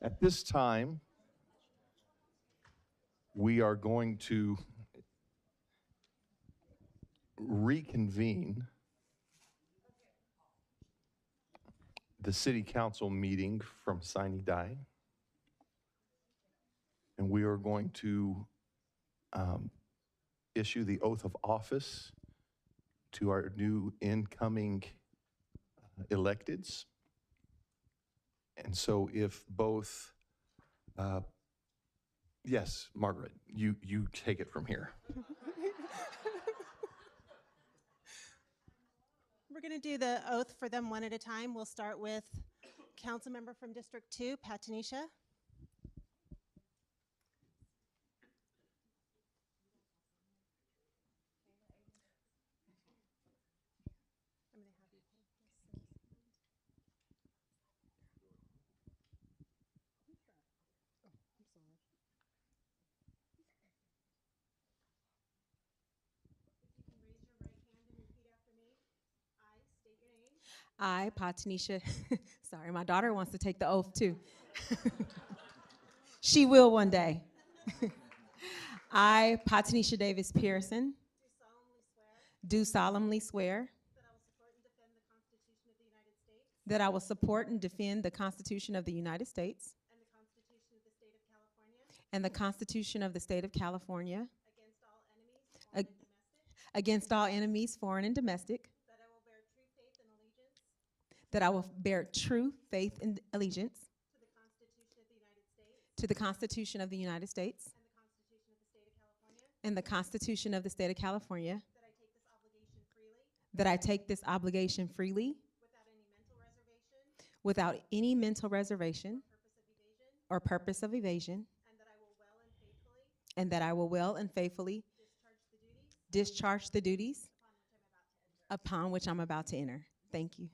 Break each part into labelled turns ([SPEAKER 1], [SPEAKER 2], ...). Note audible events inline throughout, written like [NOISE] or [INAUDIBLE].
[SPEAKER 1] At this time, we are going to reconvene the city council meeting from Sine Dai. And we are going to um, issue the oath of office to our new incoming uh, electeds. And so if both, uh, yes, Margaret, you, you take it from here.
[SPEAKER 2] We're going to do the oath for them one at a time. We'll start with council member from District 2, Pat Tanisha.
[SPEAKER 3] I, Patanisha, [LAUGHS] sorry, my daughter wants to take the oath too. [LAUGHS] she will one day. [LAUGHS] I, Patanisha Davis Pearson,
[SPEAKER 2] Do solemnly swear
[SPEAKER 3] do solemnly swear
[SPEAKER 2] that I will support and defend the Constitution of the United States
[SPEAKER 3] that I will support and defend the Constitution of the United States
[SPEAKER 2] and the Constitution of the State of California
[SPEAKER 3] and the Constitution of the State of California
[SPEAKER 2] against all enemies,
[SPEAKER 3] Ag-
[SPEAKER 2] foreign and domestic,
[SPEAKER 3] against all enemies, foreign and domestic,
[SPEAKER 2] that I will bear true faith and allegiance
[SPEAKER 3] that I will bear true faith and allegiance
[SPEAKER 2] to the Constitution of the United States
[SPEAKER 3] to the Constitution of the United States
[SPEAKER 2] and the Constitution of the State of California,
[SPEAKER 3] and the Constitution of the State of California,
[SPEAKER 2] that I take this obligation freely
[SPEAKER 3] that I take this obligation freely.
[SPEAKER 2] without any mental reservation
[SPEAKER 3] without any mental reservation
[SPEAKER 2] or purpose of evasion,
[SPEAKER 3] or purpose of evasion,
[SPEAKER 2] and that I will well and faithfully
[SPEAKER 3] and that I will well and faithfully
[SPEAKER 2] discharge the duties
[SPEAKER 3] discharge the duties
[SPEAKER 2] upon which I'm about to enter.
[SPEAKER 3] upon which I'm about to enter. Thank you.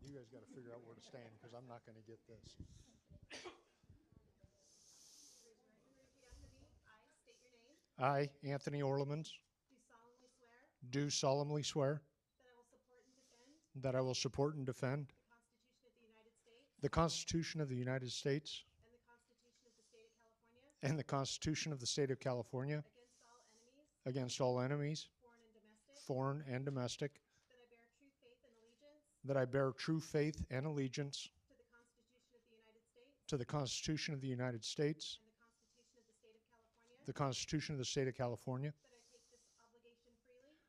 [SPEAKER 4] You guys gotta figure out where to stand, because I'm not gonna get this.
[SPEAKER 2] I state your name,
[SPEAKER 4] I, Anthony Orlemans,
[SPEAKER 2] do solemnly swear
[SPEAKER 4] do solemnly swear
[SPEAKER 2] that I will support and defend
[SPEAKER 4] that I will support and defend
[SPEAKER 2] the Constitution of the United States
[SPEAKER 4] the Constitution of the United States
[SPEAKER 2] and the Constitution of the State of California
[SPEAKER 4] and the Constitution of the State of California
[SPEAKER 2] against all enemies,
[SPEAKER 4] against all enemies,
[SPEAKER 2] foreign and domestic,
[SPEAKER 4] foreign and domestic,
[SPEAKER 2] that I bear true faith and allegiance
[SPEAKER 4] that I bear true faith and allegiance
[SPEAKER 2] to the Constitution of the United States
[SPEAKER 4] to the
[SPEAKER 2] and the
[SPEAKER 4] Constitution of the United States,
[SPEAKER 2] Constitution of the State of California,
[SPEAKER 4] the Constitution of the State of California,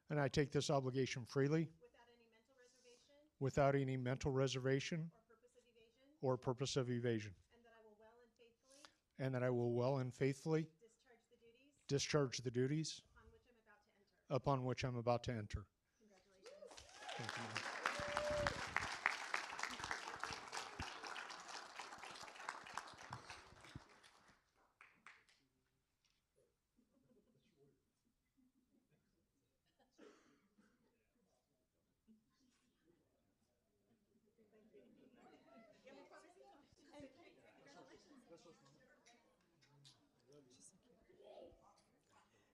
[SPEAKER 2] that I take this obligation freely
[SPEAKER 4] and I take this obligation freely
[SPEAKER 2] without any mental reservation
[SPEAKER 4] without any mental reservation
[SPEAKER 2] or purpose of evasion,
[SPEAKER 4] or purpose of evasion,
[SPEAKER 2] and that I will well and faithfully
[SPEAKER 4] and that I will well and faithfully
[SPEAKER 2] discharge the duties
[SPEAKER 4] discharge the duties
[SPEAKER 2] upon which I'm about to enter.
[SPEAKER 4] upon which I'm
[SPEAKER 2] Congratulations.
[SPEAKER 4] about to enter. Thank you, ma'am.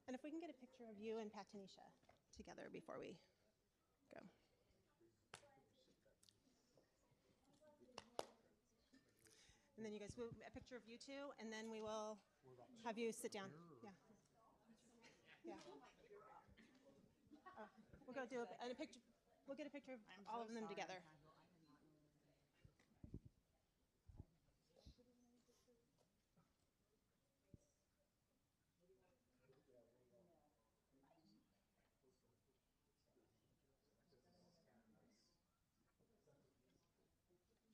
[SPEAKER 2] And if we can get a picture of you and Pat Tanisha together before we go. And then you guys, will- a picture of you two, and then we will have you sit down. Yeah. Yeah. Oh, We'll go do a, and a picture, we'll get a picture of all of them together.